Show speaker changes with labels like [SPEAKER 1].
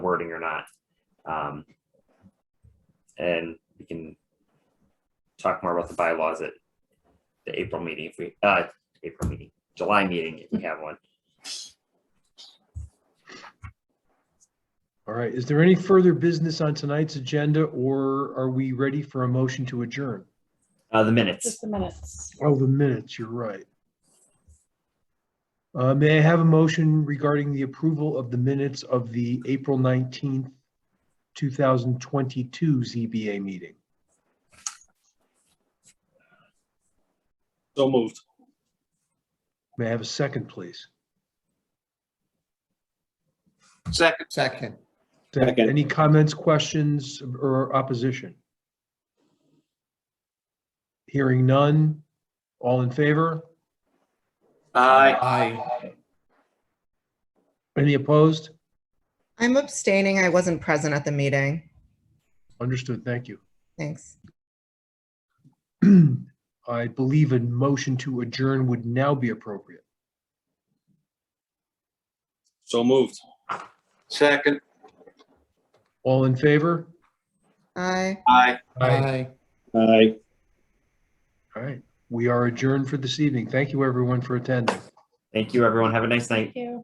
[SPEAKER 1] recording or not. Um, and we can talk more about the bylaws at the April meeting if we, uh, April meeting, July meeting if we have one.
[SPEAKER 2] All right, is there any further business on tonight's agenda or are we ready for a motion to adjourn?
[SPEAKER 1] Uh, the minutes.
[SPEAKER 3] Just a minutes.
[SPEAKER 2] Oh, the minutes, you're right. Uh, may I have a motion regarding the approval of the minutes of the April nineteenth, two thousand twenty-two ZBA meeting?
[SPEAKER 4] So moved.
[SPEAKER 2] May I have a second, please?
[SPEAKER 4] Second.
[SPEAKER 5] Second,
[SPEAKER 4] Second.
[SPEAKER 2] Any comments, questions, or opposition? Hearing none. All in favor?
[SPEAKER 4] Aye.
[SPEAKER 5] aye.
[SPEAKER 2] Any opposed?
[SPEAKER 6] I'm abstaining. I wasn't present at the meeting.
[SPEAKER 2] Understood, thank you.
[SPEAKER 6] Thanks.
[SPEAKER 2] I believe a motion to adjourn would now be appropriate.
[SPEAKER 4] So moved. Second.
[SPEAKER 2] All in favor?
[SPEAKER 6] Aye.
[SPEAKER 4] Aye.
[SPEAKER 5] Aye.
[SPEAKER 4] Aye.
[SPEAKER 2] All right, we are adjourned for this evening. Thank you, everyone, for attending.
[SPEAKER 1] Thank you, everyone. Have a nice night.
[SPEAKER 3] Thank you.